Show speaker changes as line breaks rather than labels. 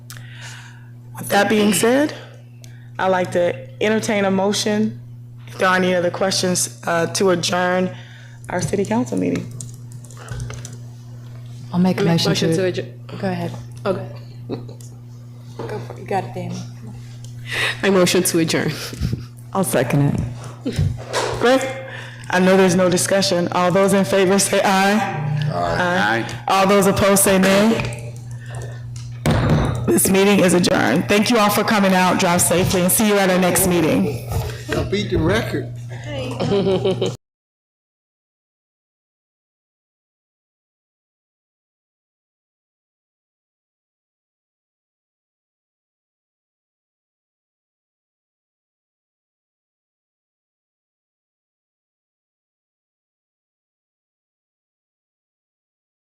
That being said, I'd like to entertain a motion, if there are any other questions, uh, to adjourn our city council meeting.
I'll make a motion
Motion to
to.
adjourn.
Go ahead.
Okay.
Go for it. You got it, Danny.
I motion to adjourn.
I'll second it.
Great. I know there's no discussion. All those in favor say aye. Aye. All those opposed say nay. This meeting is adjourned. Thank you all for coming out. Drive safely and see you at our next meeting.
I beat the record.